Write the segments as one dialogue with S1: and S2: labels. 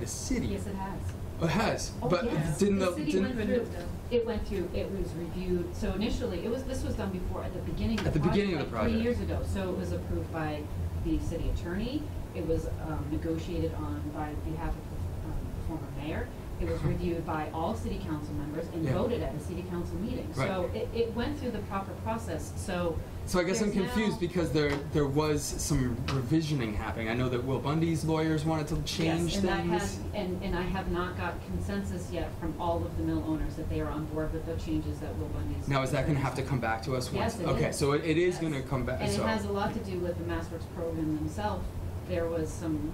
S1: the city.
S2: Yes, it has.
S1: It has,
S2: Oh,
S1: but
S2: yes.
S1: didn't the,
S2: The city
S1: didn't-
S2: went through, it went through, it was reviewed, so initially, it was, this was done before, at the beginning of the
S1: At the beginning of
S2: project,
S1: the
S2: like three
S1: project.
S2: years ago, so it was approved by the city attorney, it was um, negotiated on by behalf of the um, former mayor, it was reviewed by all city council members
S1: Uh-huh.
S2: and
S1: Yeah.
S2: voted at a city council meeting. So
S1: Right.
S2: it, it went through the proper process, so.
S1: So I guess I'm
S2: there's now-
S1: confused because there there was some revisioning happening. I know that Will Bundy's lawyers wanted to change
S2: Yes, and I
S1: things.
S2: have, and, and I have not got consensus yet from all of the mill owners that they are on board with the changes that Will Bundy's.
S1: now is that going to have to come back to us once?
S2: Yes, it
S1: okay,
S2: is.
S1: so it, it is
S2: Yes.
S1: going to come back.
S2: And it
S1: so
S2: has a lot to do with the MassWorks program themselves. There was some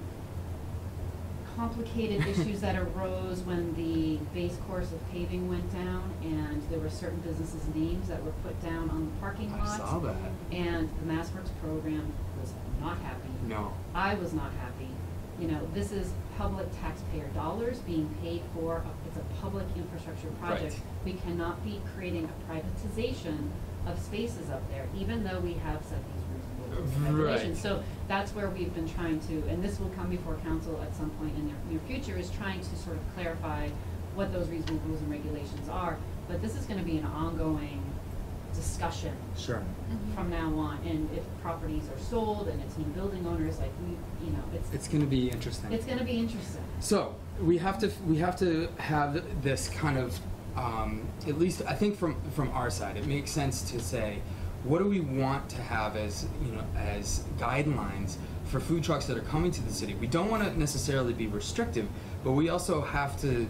S2: complicated issues that arose when the base course of paving went down, and there were certain businesses' names that were put down on the parking
S1: I
S2: lots.
S1: saw that.
S2: And the MassWorks program was not happy.
S1: No.
S2: I was not happy. You know, this is public taxpayer dollars being paid for, it's a public infrastructure project. We cannot be creating a privatization of spaces up there, even though we have set these reasonable regulations.
S1: Right.
S2: So that's where we've been trying to, and this will come before council at some point in the near future, is trying to sort of clarify what those reasonable rules and regulations are. But this is gonna be an ongoing discussion
S1: Sure.
S2: from now on, and if properties are sold and it's new building owners, like, we, you know, it's,
S1: It's going to be interesting.
S2: it's gonna be interesting.
S1: So we have to we have to have this kind of um, at least I think from from our side it makes sense to say what do we want to have as you know as guidelines for food trucks that are coming to the city. We don't want to necessarily be restrictive, but we also have to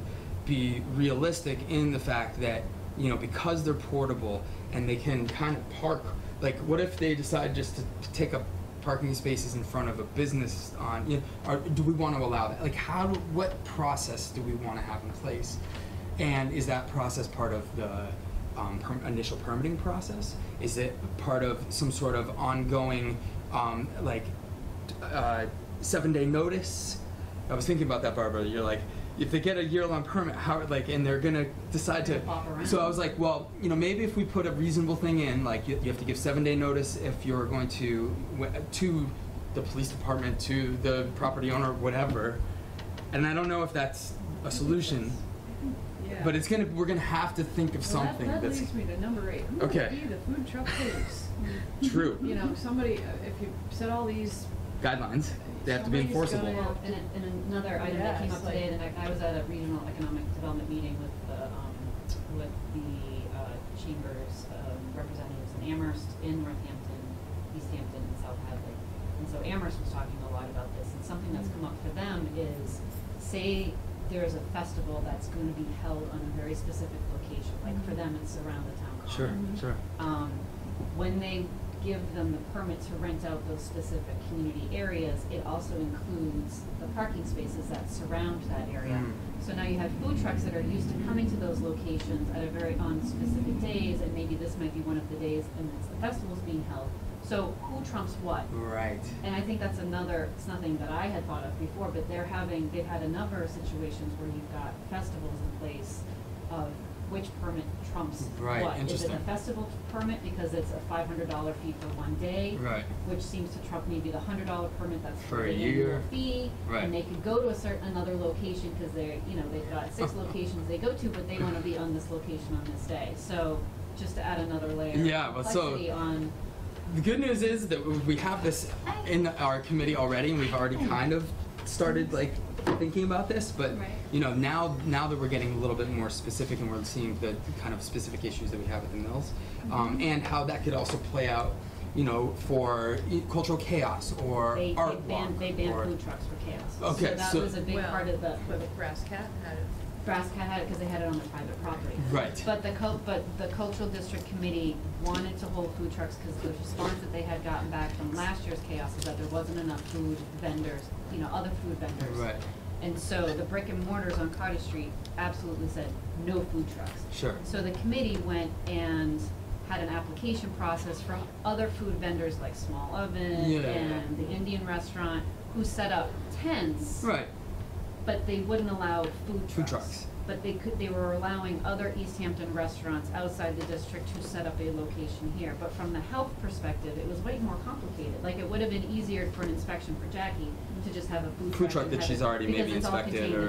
S1: be realistic in the fact that you know because they're portable and they can kind of park. Like what if they decide just to take up parking spaces in front of a business on, you know, or do we want to allow that? Like how, do- what process do we want to have in place? And is that process part of the um, per- initial permitting process? Is it part of some sort of ongoing, um, like, uh, seven-day notice? I was thinking about that, Barbara. You're like, if they get a year-long permit, how, like, and they're gonna decide to.
S2: Bop around.
S1: So I was like, well, you know, maybe if we put a reasonable thing in, like, you, you have to give seven-day notice if you're going to, w- to the police department, to the property owner, whatever. And I don't know if that's a solution,
S3: Yeah.
S1: but it's gonna, we're gonna have to think of
S3: Well, that-
S1: something
S3: That
S1: that's
S3: leads me to number eight. Who would
S1: Okay.
S3: be the food truck police?
S1: true.
S3: You know, somebody, uh, if you set all these,
S1: Guidelines, they have to be
S3: Somebody's
S1: enforceable.
S3: gonna-
S2: Well, and, a- and another item that came
S3: Yes,
S2: up today,
S3: like-
S2: and I, I was at a regional economic development meeting with the, um, with the, uh, chambers, um, representatives in Amherst, in Northampton, East Hampton, and South Hadley. And so Amherst was talking a lot about this, and something that's come up for them is, say, there's a festival that's gonna be held on a very specific location, like for
S3: Mm-hmm.
S2: them, it's around the town common
S1: Sure, sure.
S2: um, when they give them the permit to rent out those specific community areas, it also includes the parking spaces that surround that area.
S1: Mm.
S2: So now you have food trucks that are used to coming to those locations at a very, on specific days, and maybe this might be one of the days, and it's the festival's being held. So who trumps what?
S1: Right.
S2: And I think that's another, it's nothing that I had thought of before, but they're having, they've had a number of situations where you've got festivals in place of which permit trumps what.
S1: Right,
S2: Is it
S1: interesting.
S2: a festival permit because it's a five hundred dollar fee for one day?
S1: Right.
S2: Which seems to trump maybe the hundred dollar permit that's
S1: For a
S2: the
S1: year.
S2: annual fee.
S1: Right.
S2: And they could go to a certain, another location, cause they're, you know, they've got six locations they go to, but they wanna be on this location on this day. So, just to add another layer
S1: Yeah,
S2: of
S1: but so-
S2: complexity on,
S1: The good news is that we have this in our committee already, and we've already kind of started like thinking about this. But
S4: Right.
S1: you know, now now that we're getting a little bit more specific, and we're seeing the kind of specific issues that we have at the mills,
S2: Mm-hmm.
S1: um, and how that could also play out, you know, for e- cultural chaos or
S2: They,
S1: art
S2: they banned,
S1: walk
S2: they banned
S1: or-
S2: food trucks for chaos.
S1: Okay,
S2: that
S1: so-
S2: was a big
S3: well,
S2: part of the,
S3: but Brass Cat uh, had it.
S2: Brass Cat had it because they had it on their private property.
S1: Right.
S2: But the cul- but the cultural district committee wanted to hold food trucks because the response that they had gotten back from last year's chaos is that there wasn't enough food vendors, you know, other food vendors.
S1: Right.
S2: And so the brick and mortars on Cottage Street absolutely said, no food trucks.
S1: Sure.
S2: So the committee went and had an application process from other food vendors like Small Oven
S1: Yeah.
S2: and the Indian Restaurant, who set up tents.
S1: Right.
S2: But they wouldn't allow food trucks.
S1: Food trucks.
S2: But they could, they were allowing other East Hampton restaurants outside the district to set up a location here. But from the health perspective, it was way more complicated. Like, it would have been easier for an inspection for Jackie to just have a food truck.
S1: Food truck
S2: and
S1: that
S2: have
S1: she's
S2: it-
S1: already
S2: because
S1: maybe
S2: it's all
S1: inspected
S2: contained
S1: or-